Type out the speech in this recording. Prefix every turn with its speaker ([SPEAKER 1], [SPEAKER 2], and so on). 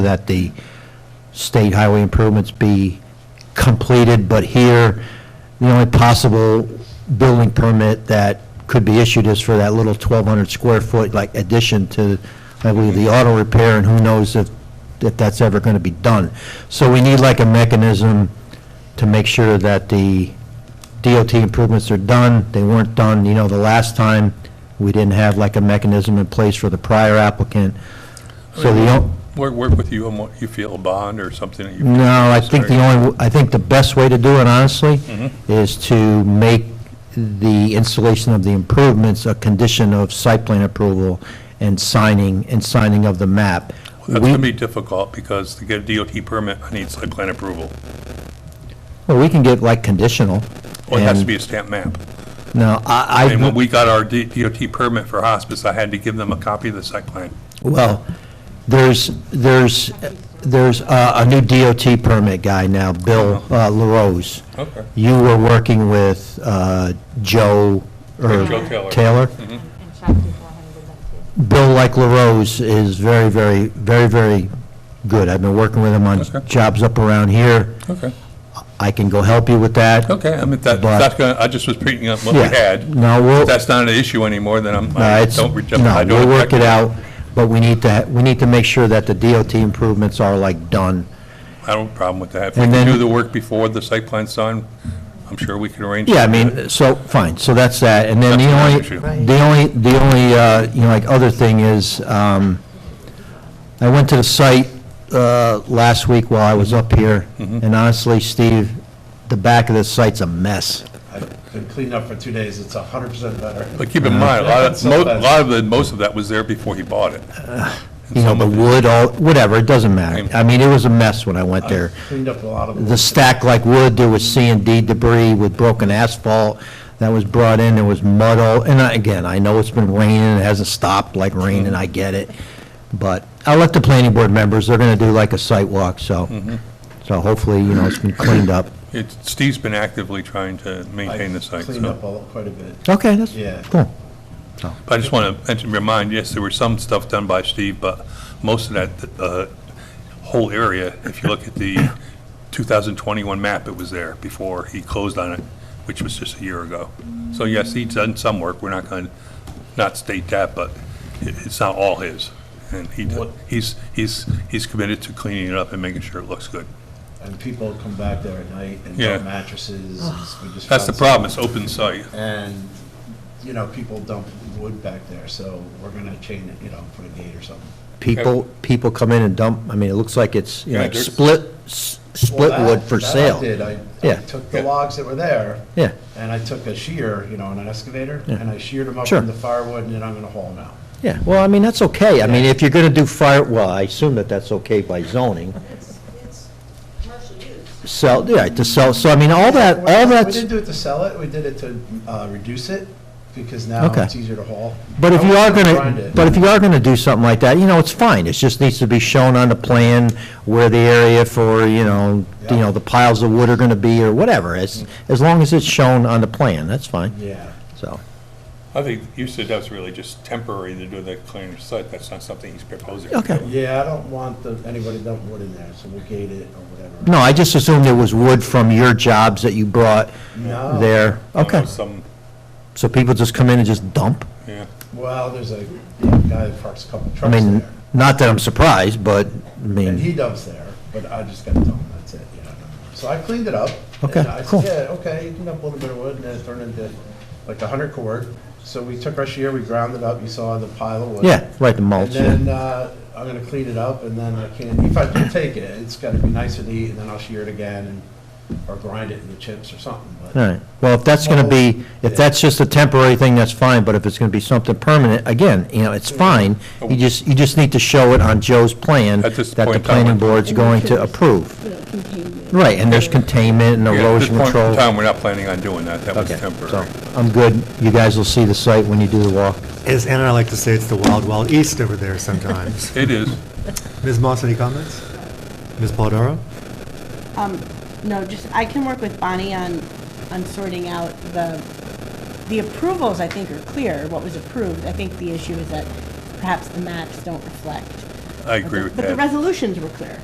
[SPEAKER 1] that the state highway improvements be completed, but here, the only possible building permit that could be issued is for that little 1,200 square foot, like addition to, I believe, the auto repair, and who knows if, if that's ever going to be done. So we need like a mechanism to make sure that the DOT improvements are done, they weren't done, you know, the last time, we didn't have like a mechanism in place for the prior applicant. So the, o-
[SPEAKER 2] Work, work with you on what you feel, a bond or something that you.
[SPEAKER 1] no, I think the only, I think the best way to do it, honestly,
[SPEAKER 2] Mhm.
[SPEAKER 1] is to make the installation of the improvements a condition of site plan approval and signing, and signing of the map.
[SPEAKER 2] That's gonna
[SPEAKER 1] We-
[SPEAKER 2] be difficult, because to get a DOT permit, I need site plan approval.
[SPEAKER 1] Well, we can get like conditional.
[SPEAKER 2] Well, it has to
[SPEAKER 1] and-
[SPEAKER 2] be a stamp map.
[SPEAKER 1] No, I, I.
[SPEAKER 2] And when we got our D- DOT permit for hospice, I had to give them a copy of the site plan.
[SPEAKER 1] Well, there's, there's, there's uh, a new DOT permit guy now, Bill
[SPEAKER 2] Oh.
[SPEAKER 1] uh, LaRose.
[SPEAKER 2] Okay.
[SPEAKER 1] You were working with uh, Joe, or
[SPEAKER 2] Joe Taylor.
[SPEAKER 1] Taylor?
[SPEAKER 3] And chapter four hundred and two.
[SPEAKER 1] Bill, like LaRose, is very, very, very, very good. I've been working with him on
[SPEAKER 2] Okay.
[SPEAKER 1] jobs up around here.
[SPEAKER 2] Okay,
[SPEAKER 1] I can go help you with that.
[SPEAKER 2] okay, I mean, that,
[SPEAKER 1] But-
[SPEAKER 2] that's gonna, I just was picking up what we
[SPEAKER 1] Yeah.
[SPEAKER 2] had.
[SPEAKER 1] No, we'll-
[SPEAKER 2] If That's not an issue anymore, then I'm,
[SPEAKER 1] No,
[SPEAKER 2] I
[SPEAKER 1] it's-
[SPEAKER 2] don't, reject-
[SPEAKER 1] no,
[SPEAKER 2] I don't.
[SPEAKER 1] we'll work
[SPEAKER 2] object.
[SPEAKER 1] it out, but we need to, we need to make sure that the DOT improvements are like done.
[SPEAKER 2] I don't have a problem with that. If we
[SPEAKER 1] And
[SPEAKER 2] can
[SPEAKER 1] then-
[SPEAKER 2] do the work before the site plan's signed, I'm sure we can arrange.
[SPEAKER 1] Yeah, I
[SPEAKER 2] to do
[SPEAKER 1] mean, so, fine, so that's that, and then the
[SPEAKER 2] That's not an
[SPEAKER 1] only,
[SPEAKER 2] issue.
[SPEAKER 1] the only, the only, uh, you know, like, other thing is, um, I went to the site, uh, last week while I was up here,
[SPEAKER 2] Mm-hmm.
[SPEAKER 1] and honestly, Steve, the back of this site's a mess.
[SPEAKER 4] I've been cleaned up for two days, it's a hundred percent better.
[SPEAKER 2] But keep
[SPEAKER 1] Uh-huh.
[SPEAKER 2] in mind, a lot of, mo- a
[SPEAKER 4] Sometimes.
[SPEAKER 2] lot of the, most of that was there before he bought it. And
[SPEAKER 1] You know,
[SPEAKER 2] some
[SPEAKER 1] the
[SPEAKER 2] of it-
[SPEAKER 1] wood, all, whatever, it doesn't matter. I mean, it was a mess when I went there.
[SPEAKER 4] Cleaned up a lot of.
[SPEAKER 1] The stack like wood, there was C and D debris with broken asphalt that was brought in, there was mud all, and I- again, I know it's been raining, it hasn't stopped like raining, I get it. But I'll let the planning board members, they're gonna do like a site walk, so,
[SPEAKER 4] Mm-hmm.
[SPEAKER 1] so hopefully, you know, it's been cleaned up.
[SPEAKER 2] It's, Steve's been actively trying to maintain the site,
[SPEAKER 4] Cleaned up
[SPEAKER 2] so.
[SPEAKER 4] all, quite a bit.
[SPEAKER 1] Okay, that's,
[SPEAKER 4] Yeah.
[SPEAKER 1] cool.
[SPEAKER 2] But I just want to mention, remind, yes, there were some stuff done by Steve, but most of that, uh, whole area, if you look at the 2021 map, it was there before he closed on it, which was just a year ago. So yes, he's done some work, we're not going to not state that, but it- it's not all his. And he, he's, he's, he's committed to cleaning it up and making sure it looks good.
[SPEAKER 4] And people come back there at night and
[SPEAKER 2] Yeah.
[SPEAKER 4] dump mattresses. we just
[SPEAKER 2] That's the
[SPEAKER 4] found some-
[SPEAKER 2] problem, it's open site.
[SPEAKER 4] And, you know, people dump wood back there, so we're gonna chain it, you know, put a gate or something.
[SPEAKER 1] People, people come in and dump, I mean, it looks like it's, you know,
[SPEAKER 2] Yeah,
[SPEAKER 1] like
[SPEAKER 2] there's-
[SPEAKER 1] split, s- split
[SPEAKER 4] Well,
[SPEAKER 1] wood
[SPEAKER 4] that-
[SPEAKER 1] for
[SPEAKER 4] that I
[SPEAKER 1] sale.
[SPEAKER 4] did. I, I
[SPEAKER 1] Yeah.
[SPEAKER 4] took the
[SPEAKER 2] Yeah.
[SPEAKER 4] logs that were there.
[SPEAKER 1] Yeah.
[SPEAKER 4] And I took a shear, you know, and an excavator,
[SPEAKER 1] Yeah.
[SPEAKER 4] and I sheared them up
[SPEAKER 1] Sure.
[SPEAKER 4] into firewood, and then I'm gonna haul them out.
[SPEAKER 1] Yeah, well, I mean, that's okay. I mean, if you're gonna do fire, well, I assume that that's okay by zoning.
[SPEAKER 5] It's, it's commercial use.
[SPEAKER 1] Sell, yeah, to sell, so I mean, all that,
[SPEAKER 4] We-
[SPEAKER 1] all
[SPEAKER 4] We
[SPEAKER 1] that's,
[SPEAKER 4] didn't do it to sell it, we did it to uh, reduce it, because now
[SPEAKER 1] Okay.
[SPEAKER 4] it's easier to haul.
[SPEAKER 1] but if
[SPEAKER 4] I
[SPEAKER 1] you are
[SPEAKER 4] wasn't grind
[SPEAKER 1] gonna,
[SPEAKER 4] it.
[SPEAKER 1] but if you are gonna do something like that, you know, it's fine. It just needs to be shown on the plan where the area for, you know, you
[SPEAKER 4] Yeah.
[SPEAKER 1] know, the piles of wood are gonna be or whatever. As, as long as it's shown on the plan, that's fine,
[SPEAKER 4] Yeah,
[SPEAKER 1] so.
[SPEAKER 2] I think you said that's really just temporary to do the cleaning of site, that's not something he's proposing.
[SPEAKER 1] Okay.
[SPEAKER 4] yeah, I don't want the, anybody to dump wood in there, so we'll gate it or whatever.
[SPEAKER 1] No, I just assumed there was wood from your jobs that you brought
[SPEAKER 4] No.
[SPEAKER 1] there.
[SPEAKER 2] I know
[SPEAKER 1] Okay,
[SPEAKER 4] Oh.
[SPEAKER 2] Some,
[SPEAKER 1] so people just come in and just dump?
[SPEAKER 2] yeah.
[SPEAKER 4] Well, there's a yeah, guy that parks a couple
[SPEAKER 1] I
[SPEAKER 4] trucks
[SPEAKER 1] mean,
[SPEAKER 4] there,
[SPEAKER 1] not that I'm surprised, but, I
[SPEAKER 4] and
[SPEAKER 1] mean,
[SPEAKER 4] he dumps there, but I just got to tell him that's it, you know. So I cleaned it up.
[SPEAKER 1] Okay,
[SPEAKER 4] and I said,
[SPEAKER 1] cool.
[SPEAKER 4] Yeah, okay, you can dump a little bit of wood, and then it turned into like a hundred cord. So we took our shear, we ground it up, you saw the pile of wood.
[SPEAKER 1] yeah, right, the mulch,
[SPEAKER 4] And
[SPEAKER 1] yeah.
[SPEAKER 4] then, uh, I'm gonna clean it up, and then I can, if I do take it, it's gotta be nice and neat, and then I'll shear it again, and, or grind it into chips or something,
[SPEAKER 1] All
[SPEAKER 4] but.
[SPEAKER 1] right, well, if that's going to be, if that's just a temporary thing, that's fine, but if it's going to be something permanent, again, you know, it's fine. You just, you just need to show it on Joe's plan
[SPEAKER 2] At this
[SPEAKER 1] that the
[SPEAKER 2] point in time,
[SPEAKER 1] planning board's going to approve. Right, and there's containment and
[SPEAKER 2] Yeah, At this
[SPEAKER 1] erosion
[SPEAKER 2] point in
[SPEAKER 1] control.
[SPEAKER 2] time, we're not planning on doing that, that was
[SPEAKER 1] Okay, so,
[SPEAKER 2] temporary.
[SPEAKER 1] I'm good. You guys will see the site when you do the walk.
[SPEAKER 6] As Ann and I like to say, it's the wild, wild east over there sometimes.
[SPEAKER 2] It is,
[SPEAKER 6] Ms. Moss, any comments? Ms. Paladaro?
[SPEAKER 5] Um, no, just, I can work with Bonnie on, on sorting out the, the approvals, I think, are clear, what was approved. I think the issue is that perhaps the maps don't reflect
[SPEAKER 2] I agree with that.
[SPEAKER 5] But the resolutions were clear.